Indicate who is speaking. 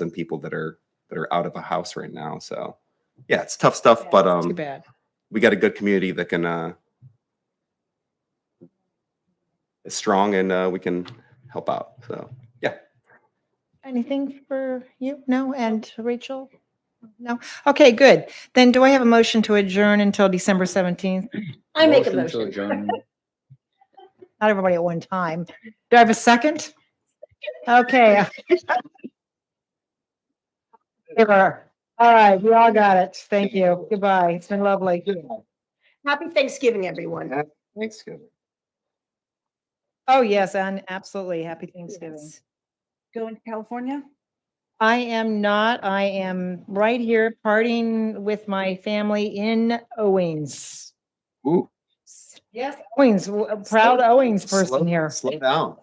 Speaker 1: and people that are that are out of a house right now. So yeah, it's tough stuff, but
Speaker 2: Too
Speaker 1: um,
Speaker 2: bad.
Speaker 1: we got a good community that can uh, is strong and uh, we can help out. So
Speaker 2: Anything for you? No? And Rachel? No? Okay, good. Then do I have a motion to adjourn until December 17th?
Speaker 3: I make a
Speaker 4: to
Speaker 3: motion.
Speaker 4: adjourn.
Speaker 2: Not everybody at one time. Do I have a second? Okay. Favor. All right, we all got it. Thank you. Goodbye. It's been lovely.
Speaker 3: Happy Thanksgiving, everyone.
Speaker 1: thanks.
Speaker 2: Oh, yes, and absolutely. Happy Thanksgiving.
Speaker 5: Going to California?
Speaker 2: I am not. I am right here partying with my family in Owings.
Speaker 1: Ooh,
Speaker 2: Yes, Owings, w- a proud Owings
Speaker 1: slow-
Speaker 2: person here.
Speaker 1: Slow down.